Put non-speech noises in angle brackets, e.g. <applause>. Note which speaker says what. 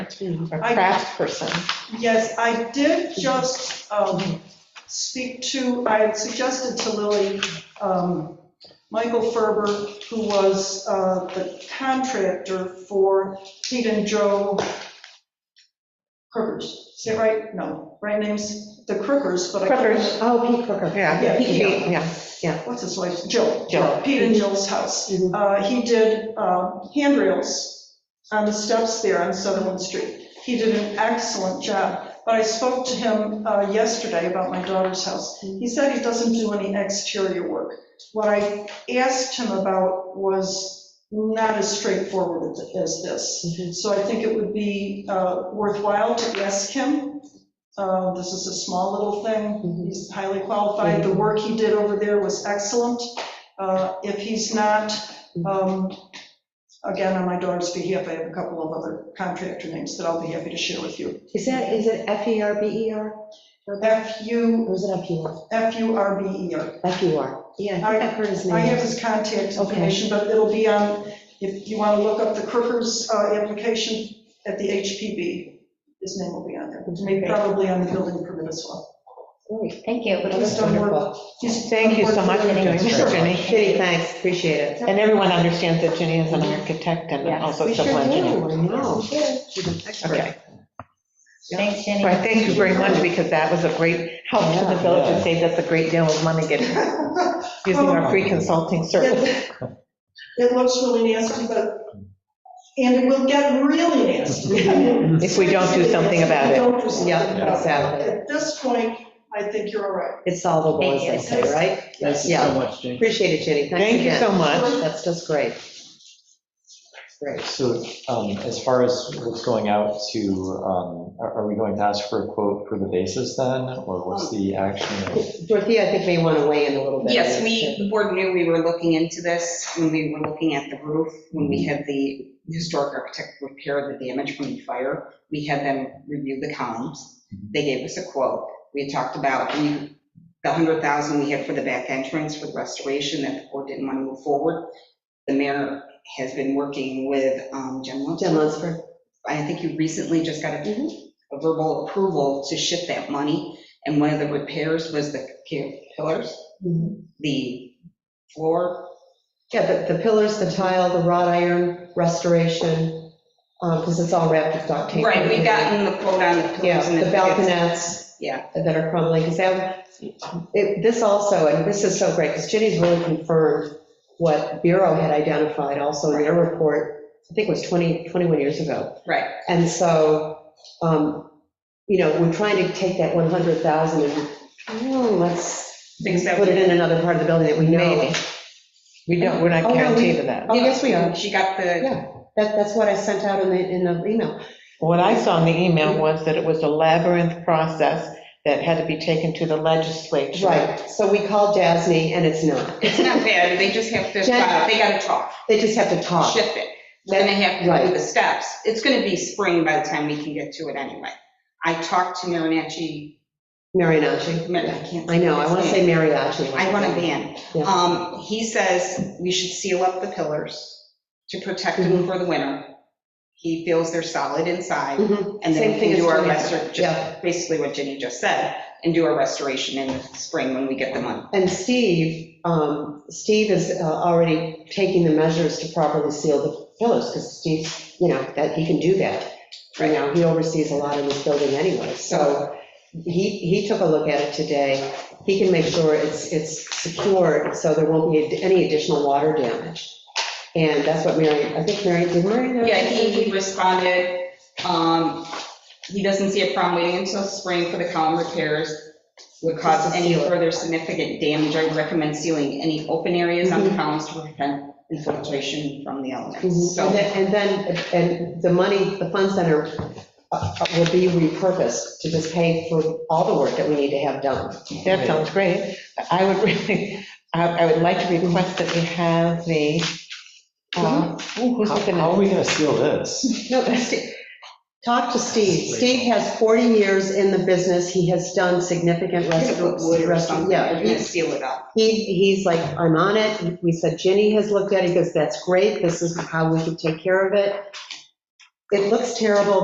Speaker 1: Our
Speaker 2: I-
Speaker 1: craft person.
Speaker 2: Yes, I did just um, speak to, I had suggested to Lily, um, Michael Ferber, who was uh, the contractor for Pete and Joe Crookers. Is that right? No, right name's the Crookers, but I. couldn't-
Speaker 1: Crookers.
Speaker 3: Oh, Pete Crooker.
Speaker 1: uh, Yeah,
Speaker 2: Yeah,
Speaker 1: he-
Speaker 2: yeah.
Speaker 1: yeah,
Speaker 2: What's his wife's, Jill.
Speaker 1: Jill.
Speaker 2: Pete and Jill's house.
Speaker 3: Mhm.
Speaker 2: Uh, He did um, handrails on the steps there on Sutherland Street. He did an excellent job, but I spoke to him uh, yesterday about my daughter's house. He said he doesn't do any exterior work. What I asked him about was not as straightforward as
Speaker 3: Mhm.
Speaker 2: this. So I think it would be uh, worthwhile to ask him. Uh, This is a small little thing.
Speaker 1: Mm-hmm.
Speaker 3: Mhm.
Speaker 2: He's highly qualified. The work he did over there was excellent. Uh, If he's not, um, again, on my daughter's behalf, I have a couple of other contractor names that I'll be happy to share with you.
Speaker 3: Is that, is it F E R B E R?
Speaker 2: F U,
Speaker 3: Or is it F
Speaker 1: E
Speaker 3: U R?
Speaker 2: F U R B E R.
Speaker 3: F U R. Yeah, I think I've heard his
Speaker 2: I have
Speaker 3: name.
Speaker 2: his contact information, but it'll be on, if you want to look up the Crookers uh, application at the HPB, his name will be on there. Maybe probably on the building permit as well.
Speaker 3: Great.
Speaker 4: Thank you.
Speaker 2: But
Speaker 3: Oh,
Speaker 2: he's
Speaker 3: that's
Speaker 2: done work.
Speaker 3: wonderful.
Speaker 2: he's
Speaker 1: Thank you so
Speaker 2: done
Speaker 1: much
Speaker 2: work
Speaker 1: for doing
Speaker 2: Sure.
Speaker 1: that, Jenny.
Speaker 3: Kitty, thanks, appreciate it.
Speaker 1: And everyone understands that Jenny is an architect and
Speaker 4: Yes.
Speaker 1: also
Speaker 3: We sure do,
Speaker 1: civil engineer.
Speaker 3: I know. She's an expert.
Speaker 1: Okay,
Speaker 4: Thanks,
Speaker 1: so I
Speaker 4: Jenny.
Speaker 1: thank you very much because that was a great help to the
Speaker 3: Yeah,
Speaker 1: village and
Speaker 5: yeah.
Speaker 1: saved us a great deal of money getting,
Speaker 2: <laughs>
Speaker 1: using our free consulting service.
Speaker 2: It it looks really nasty, but, and it will get really nasty. I mean,
Speaker 1: If we don't do something about it.
Speaker 2: If we don't do something
Speaker 3: Yeah,
Speaker 2: about it.
Speaker 3: exactly.
Speaker 2: At this point, I think you're all right.
Speaker 3: It's solvable, as they say, right?
Speaker 5: Thank you
Speaker 3: Yeah.
Speaker 5: so much, Jane.
Speaker 3: Appreciate it, Jenny. Thanks
Speaker 1: Thank you
Speaker 3: again.
Speaker 1: so much.
Speaker 3: That's just great. Great.
Speaker 5: So um, as far as what's going out to, um, are are we going to ask for a quote for the basis then, or what's
Speaker 3: Um,
Speaker 5: the action?
Speaker 3: Dorothea, I think may want to weigh in a little bit.
Speaker 6: Yes, we, the board knew we were looking into this when we were looking at the roof, when we had the historic architect repair the damage from the fire. We had them review the columns. They gave us a quote. We had talked about we- the 100,000 we had for the back entrance for the restoration that the board didn't want to move forward. The mayor has been working with um, Jen Lunsford.
Speaker 3: Jen Lunsford.
Speaker 6: I think you recently just got a a verbal approval to shift that money. And one of the repairs was the pillars the floor.
Speaker 3: Yeah, but the pillars, the tile, the wrought iron restoration, because it's all wrapped with duct tape.
Speaker 6: Right, we've gotten the quote on the
Speaker 3: Yeah,
Speaker 6: pillars and
Speaker 3: the
Speaker 6: the.
Speaker 3: balconets.
Speaker 6: Yeah.
Speaker 3: That are crumbling, because that, it- this also, and this is so great, because Ginny's really confirmed what Bureau had identified also in their report, I think it was 20, 21 years ago.
Speaker 6: Right,
Speaker 3: And so, um, you know, we're trying to take that 100,000 and, hmm, let's
Speaker 6: Fix that.
Speaker 3: put it in another part of the building that we know.
Speaker 1: Maybe. We don't, we're not
Speaker 3: Oh, no, we-
Speaker 1: guaranteed of that.
Speaker 3: Oh, yes, we are.
Speaker 6: she got the,
Speaker 3: Yeah, that, that's what I sent out in the, in the email.
Speaker 1: What I saw in the email was that it was a labyrinth process that had to be taken to the legislature.
Speaker 3: Right, so we called Jasny, and it's not.
Speaker 6: it's not bad, they just have to, uh,
Speaker 3: Jen-
Speaker 6: they gotta talk,
Speaker 3: They just have to talk.
Speaker 6: shift it. Then they have to
Speaker 3: Right.
Speaker 6: do the steps. It's gonna be spring by the time we can get to it anyway. I talked to Marinacci, I
Speaker 3: Mariachi.
Speaker 6: can't.
Speaker 3: I know, I want to
Speaker 6: his
Speaker 3: say
Speaker 6: name.
Speaker 3: mariachi.
Speaker 6: I want a van.
Speaker 3: Yeah.
Speaker 6: Um, he says we should seal up the pillars to protect
Speaker 3: Mm-hmm.
Speaker 6: them for the winter. He feels they're solid inside.
Speaker 3: Mhm,
Speaker 6: And
Speaker 3: Same
Speaker 6: then we
Speaker 3: thing
Speaker 6: can do
Speaker 3: as
Speaker 6: our
Speaker 3: Jenny.
Speaker 6: restoration,
Speaker 3: Yeah.
Speaker 6: basically what Jenny just said, and do our restoration in the spring when we get the money.
Speaker 3: And Steve, um, Steve is uh, already taking the measures to properly seal the pillars, because Steve, you know, that, he can do that. Right now, he oversees a lot in this building anyway, so he, he took a look at it today. He can make sure it's, it's secured, so there won't be any additional water damage. And that's what Mary, I think Mary, did Mary? know?
Speaker 6: Yeah, he he responded, um, he doesn't see a problem waiting until spring for the column repairs. Would cause
Speaker 3: Just to
Speaker 6: any
Speaker 3: seal it.
Speaker 6: further significant damage. I would recommend sealing any open areas
Speaker 3: Mm-hmm.
Speaker 6: on the columns to prevent infiltration from the elements.
Speaker 3: Mhm. And
Speaker 6: So,
Speaker 3: then- And then, and the money, the fund center uh, uh, will be repurposed to just pay for all the work that we need to have done.
Speaker 1: That sounds great. I would really, I I would like to request that we have the, uh, ooh, who's
Speaker 5: How
Speaker 1: looking
Speaker 5: how
Speaker 1: at
Speaker 5: are we going to seal this?
Speaker 3: No, but Steve- talk to Steve. Steve has 40 years in the business. He has done significant
Speaker 6: just put wood
Speaker 3: restoration.
Speaker 6: or something,
Speaker 3: Yeah,
Speaker 6: and then
Speaker 3: he's-
Speaker 6: seal it up.
Speaker 3: he, he's like, I'm on it. We said Ginny has looked at it, he goes, that's great. This is how we should take care of it. It looks terrible,